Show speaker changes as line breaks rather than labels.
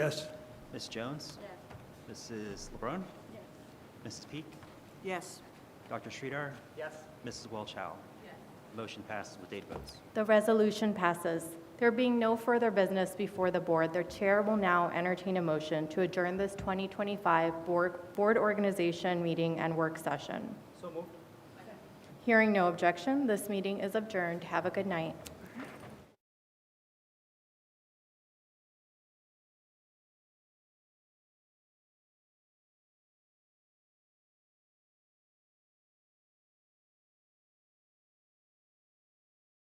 Yes.
Ms. Jones?
Yes.
Mrs. LeBrun?
Yes.
Mrs. Peak?
Yes.
Dr. Sridhar?
Yes.
Mrs. Welchow? Motion passes with eight votes.
The resolution passes. There being no further business before the board, the chair will now entertain a motion to adjourn this 2025 board board organization meeting and work session.
So moved.
Hearing no objection, this meeting is adjourned. Have a good night.